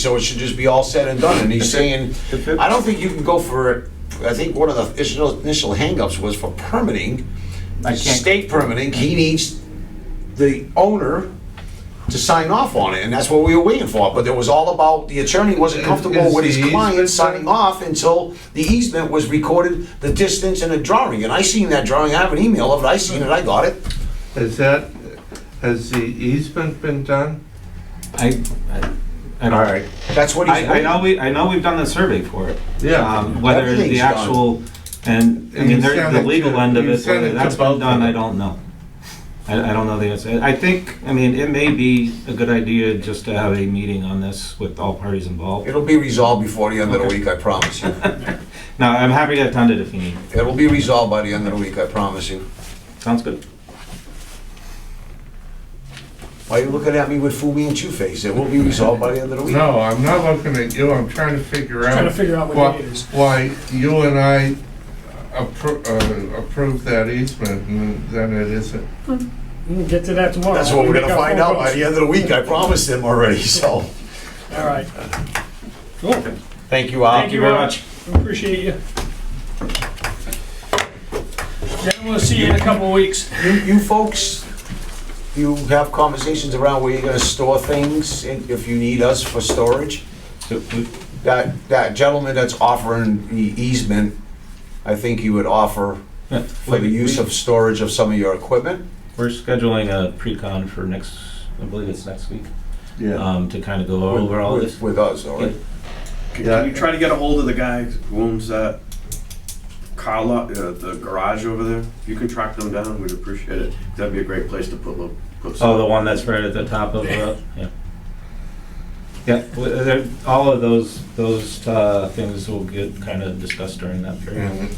So it should just be all said and done, and he's saying, If it- I don't think you can go for, I think one of the initial, initial hangups was for permitting, I can't- state permitting, he needs the owner to sign off on it, and that's what we were waiting for, but it was all about, the attorney wasn't Is- comfortable is with his the client easement signing done? off until the easement was recorded, the distance and a drawing, and I seen that drawing, I have an email of it, I seen it, I got it. Has that, has the easement been done? I, I, I don't. All right. That's what he's. I, I know we, I know we've done the survey for it. Yeah. Um, Whether the Everything's actual, and, I And mean, you there- sent the it legal to- end of you it, sent it whether to that's both been of done, I them. don't know. I, I don't know the answer. I think, I mean, it may be a good idea just to have a meeting on this with all parties involved. It'll be resolved before the end of the week, I promise you. Now, I'm happy to attend it if you need. It'll be resolved by the end of the week, I promise you. Sounds good. Why are you looking at me with Fumi and Two-Face? It will be resolved by the end of the week. No, I'm not looking at you, I'm trying to figure out. Trying to figure out why- what it is. Why you and I appro- uh, approved that easement and then it isn't. We'll get to that tomorrow. That's what we're gonna find out by the you. end of the week, I promised them already, so. All right. Cool. Thank you, Al. Thank you very much. Appreciate you. Then we'll see you in a couple of weeks. You, you folks, you have conversations around where you're gonna store things, and if you need us for storage? That, that gentleman that's offering the easement, I think you would offer for the use of storage of some of your equipment. We're scheduling a pre-con for next, I believe it's next week, Yeah. um, to kind of go over all with- this. With us, all right? Can Yeah. can you try to get a hold of the guy who owns that car lot, uh, the garage over there? If you can track them down, we'd appreciate it. That'd be a great place to put, lo- put Oh, some. the one that's right at the top of the, yeah. Yeah, well, there- all of those, those uh, things will get kind of discussed during that period. And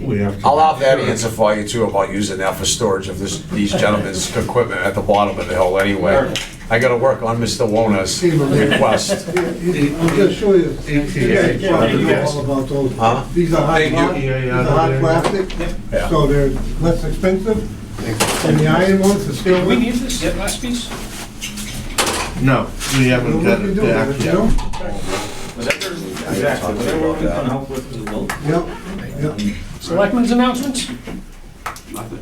We have to. I'll have that answer for you too about using that for storage of this, these gentlemen's equipment at the bottom of the hill anyway. I gotta work on Mr. Wona's request. I'm just sure you. ETA. You guys know all about those. Huh? These are hard, Thank you. pla- these are hard Yeah. plastic, so they're less expensive. And the iron ones are still. Do we need this last piece? No, we haven't got it back You yet. know? Exactly. Whatever we can help with, we will. Yep, yep. Selectmen's announcements? Nothing.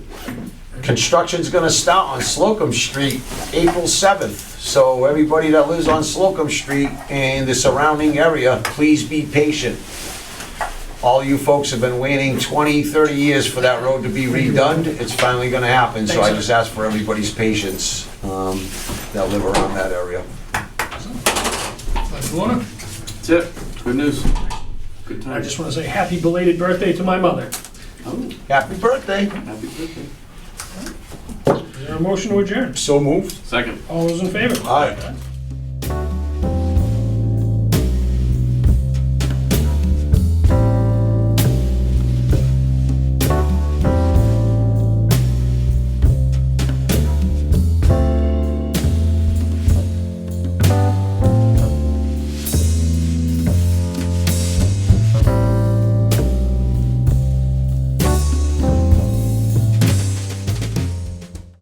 Construction's gonna start on Slocum Street, April seventh. So everybody that lives on Slocum Street and the surrounding area, please be patient. All you folks have been waiting 20, 30 years for that road to be redone. It's finally gonna happen, so I just ask for everybody's patience, um, that live around that area. Select Warner? That's it. Good news. Good time. I just want to say happy belated birthday to my mother. Oh, Happy birthday. happy birthday. Is there a motion to adjourn? So moved. Second. All those in favor? Aye.